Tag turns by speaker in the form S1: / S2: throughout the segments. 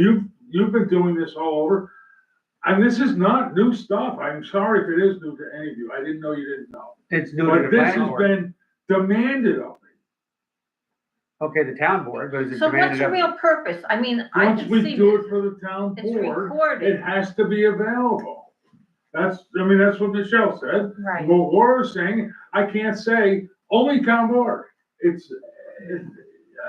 S1: You've, you've been doing this all over. And this is not new stuff. I'm sorry if it is new to any of you. I didn't know you didn't know.
S2: It's new to the
S1: But this
S2: planning
S1: has
S2: board.
S1: been demanded of me.
S2: Okay, the town board, but is it
S3: So what's
S2: demanded
S3: your
S2: of,
S3: real purpose? I mean, I
S1: Once
S3: can
S1: we
S3: see
S1: do it
S3: this,
S1: for the town
S3: it's
S1: board, it
S3: recorded,
S1: has to be available. That's, I mean, that's what Michelle said. But
S3: right?
S1: Laura's saying, I can't say, only town board. It's, it-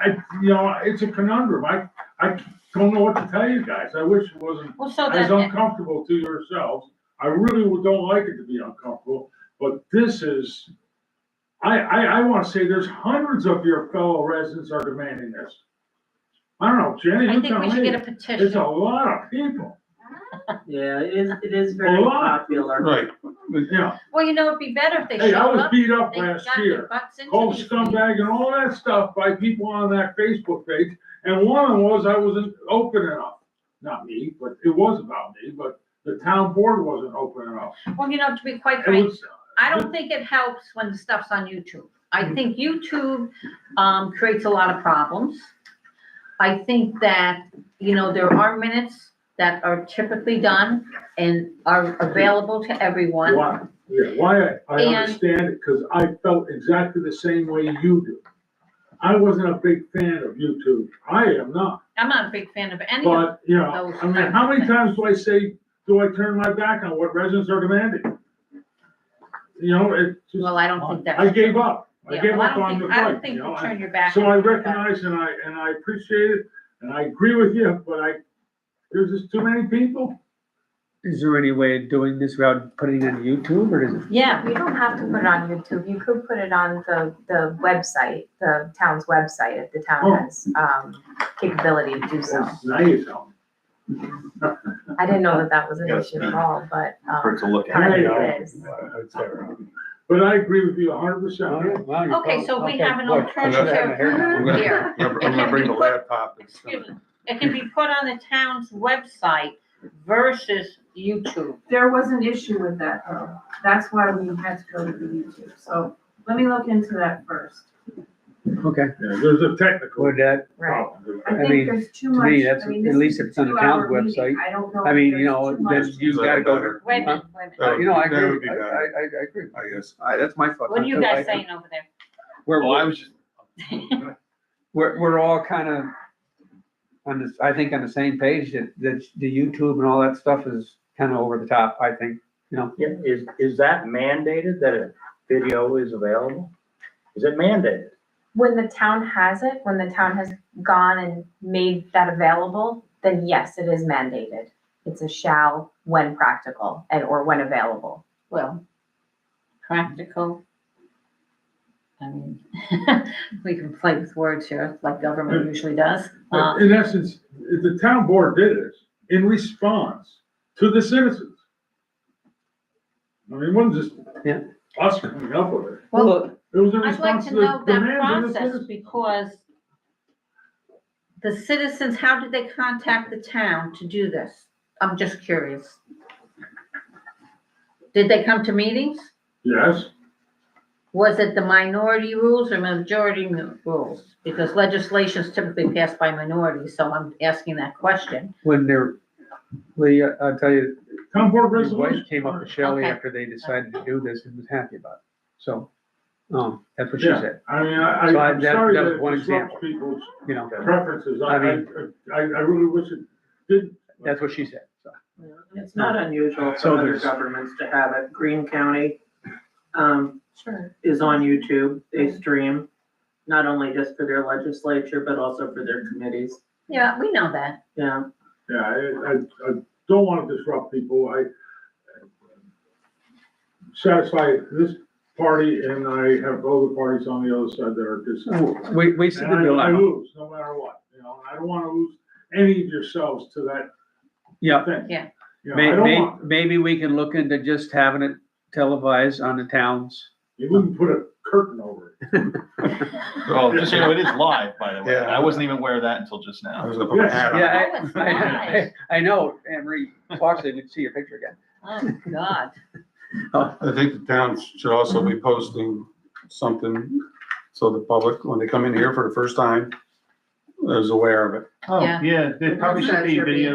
S1: I, you know, it's a conundrum. I, I don't know what to tell you guys. I wish it wasn't
S3: Well, so
S1: as
S3: then,
S1: uncomfortable to yourselves. I really would- don't like it to be uncomfortable, but this is, I, I, I wanna say there's hundreds of your fellow residents are demanding this. I don't know, Jenny,
S3: I
S1: you
S3: think we
S1: tell
S3: should
S1: me,
S3: get a
S1: it's a
S3: petition.
S1: lot of people,
S4: Yeah, it is, it is very
S1: lot.
S4: popular.
S5: Right,
S1: yeah.
S3: Well, you know, it'd be better if they
S1: Hey, I
S3: showed
S1: was
S3: up,
S1: beat up
S3: they got
S1: last
S3: their
S1: year,
S3: butts into
S1: cold
S3: these
S1: scumbag and all that stuff by people on that Facebook page. And one of them was I wasn't open enough, not me, but it was about me, but the town board wasn't open enough.
S3: meetings. Well, you know, to be quite
S1: It
S3: frank,
S1: was,
S3: I don't think it helps when the stuff's on YouTube.
S1: Mm.
S3: I think YouTube, um, creates a lot of problems. I think that, you know, there are minutes that are typically done and are available to everyone.
S1: Why, yeah, why I, I
S3: And-
S1: understand it, because I felt exactly the same way you do. I wasn't a big fan of YouTube. I am not,
S3: I'm not a big fan of any of
S1: but, you know, I mean, how many times do I say, do I turn my back on what residents are demanding? You know, it just,
S3: Well, I don't think that's.
S1: I gave up. I
S3: Yeah,
S1: gave
S3: well,
S1: up
S3: don't
S1: on the
S3: think- I don't
S1: fight,
S3: think
S1: you know?
S3: you
S1: I-
S3: turn your back.
S1: So
S3: on
S1: I
S3: it, but-
S1: recognize and I, and I appreciate it, and I agree with you, but I, there's just too many people.
S2: is there any way of doing this without putting it on YouTube or is it?
S3: Yeah,
S6: You don't have to put it on YouTube, you could put it on the, the website, the town's website, if the
S1: Oh.
S6: town has, um, capability to do so.
S1: That's nice, huh?
S6: I didn't know that that was an
S5: Yes.
S6: issue at all, but,
S5: for it
S6: um,
S5: to look at.
S6: kind
S1: Hey,
S6: of it is.
S1: But I agree with you hundred
S2: Oh,
S1: percent.
S2: yeah, wow, you're
S3: Okay, so
S2: probably-
S3: we have an
S2: okay, look,
S3: alternative.
S2: I'm gonna-
S5: I'm
S3: Here.
S5: gonna, I'm gonna bring the laptop. and stuff.
S3: excuse me, it can be put on the town's website versus YouTube.
S7: There was an issue with that though. That's why we had to go to the YouTube. So let me look into that first.
S2: Okay,
S1: Yeah, there's a technical
S2: would that,
S6: Right.
S1: problem.
S7: I
S2: I
S7: think
S2: mean,
S7: there's too
S2: to
S7: much.
S2: me, that's-
S7: I mean,
S2: at
S7: this
S2: least
S7: is a
S2: it's on the
S7: two-hour
S2: town's
S7: meeting.
S2: website.
S7: I don't know.
S2: I
S7: if
S2: mean, you
S7: there's
S2: know,
S7: too
S2: then
S7: much.
S2: you've gotta go to.
S3: Wait a minute, wait a
S2: Uh,
S3: minute.
S2: You know, I
S5: That would be
S2: agree, I,
S5: better.
S2: I, I- I agree.
S5: I guess, I, that's my thought.
S3: What are you guys saying over there?
S2: We're,
S5: Well, I was just.
S2: we're, we're all kind of on this, I think on the same page that, that the YouTube and all that stuff is kind of over the top, I think.
S8: Yeah, is, is that mandated that a video is available? Is it mandated?
S6: When the town has it, when the town has gone and made that available, then yes, it is mandated. It's a shall when practical and, or when available.
S3: Well, practical. I mean, we can play with words here like government usually does. Uh,
S1: In essence, the town board did this in response to the citizens. I mean, it wasn't just
S2: Yeah.
S1: us coming up with it.
S3: Well,
S1: It was in
S3: I'd like
S1: response
S3: to
S1: to the
S3: know that
S1: demands of the
S3: process
S1: citizens.
S3: because the citizens, how did they contact the town to do this? I'm just curious. Did they come to meetings?
S1: Yes,
S3: Was it the minority rules or majority nu- rules? Because legislation is typically passed by minorities, so I'm asking that question.
S2: When they're, Lee, I- I'll tell you,
S1: town board
S2: his
S1: resolution.
S2: wife came up with Shelley
S3: Okay.
S2: after they decided to do this and was happy about it. So, um, that's what she
S1: Yeah.
S2: said,
S1: I mean, I,
S2: So
S1: I-
S2: I-
S1: I'm
S2: that-
S1: sorry
S2: that was
S1: that
S2: one
S1: it disrupts
S2: example.
S1: people's
S2: you know,
S1: preferences. I,
S2: I
S1: I,
S2: mean-
S1: I I really wish it didn't.
S2: that's what she said, so.
S4: It's not unusual
S2: So
S4: for other
S2: there's-
S4: governments to have it. Green County, um,
S6: Sure.
S4: is on YouTube. They stream, not only just for their legislature, but also for their committees.
S3: Yeah, we know that.
S4: Yeah,
S1: Yeah, I, I, I don't wanna disrupt people, I uh, satisfy this party and I have other parties on the other side that are just.
S2: We, we see the
S1: And I, I
S2: dilemma,
S1: lose, no matter what, you know, and I don't wanna lose any of yourselves to that
S2: yeah.
S1: thing.
S3: Yeah.
S1: You know, I
S2: May,
S1: don't
S2: may,
S1: want,
S2: maybe we can look into just having it televised on the towns.
S1: you wouldn't put a curtain over it.
S9: Oh, just so you know, it is live, by the way.
S5: Yeah.
S9: I wasn't even aware of that until just
S5: I
S9: now.
S5: was gonna put my hat on.
S2: Yeah,
S3: Oh, it's
S2: I- I,
S3: live.
S2: I, I know, Anne Marie, Foxley, we'd see your picture again.
S3: Oh, God.
S5: I think the town should also be posting something so the public, when they come in here for the first time,
S10: was aware of it.
S11: Yeah.
S2: Yeah, there probably should be video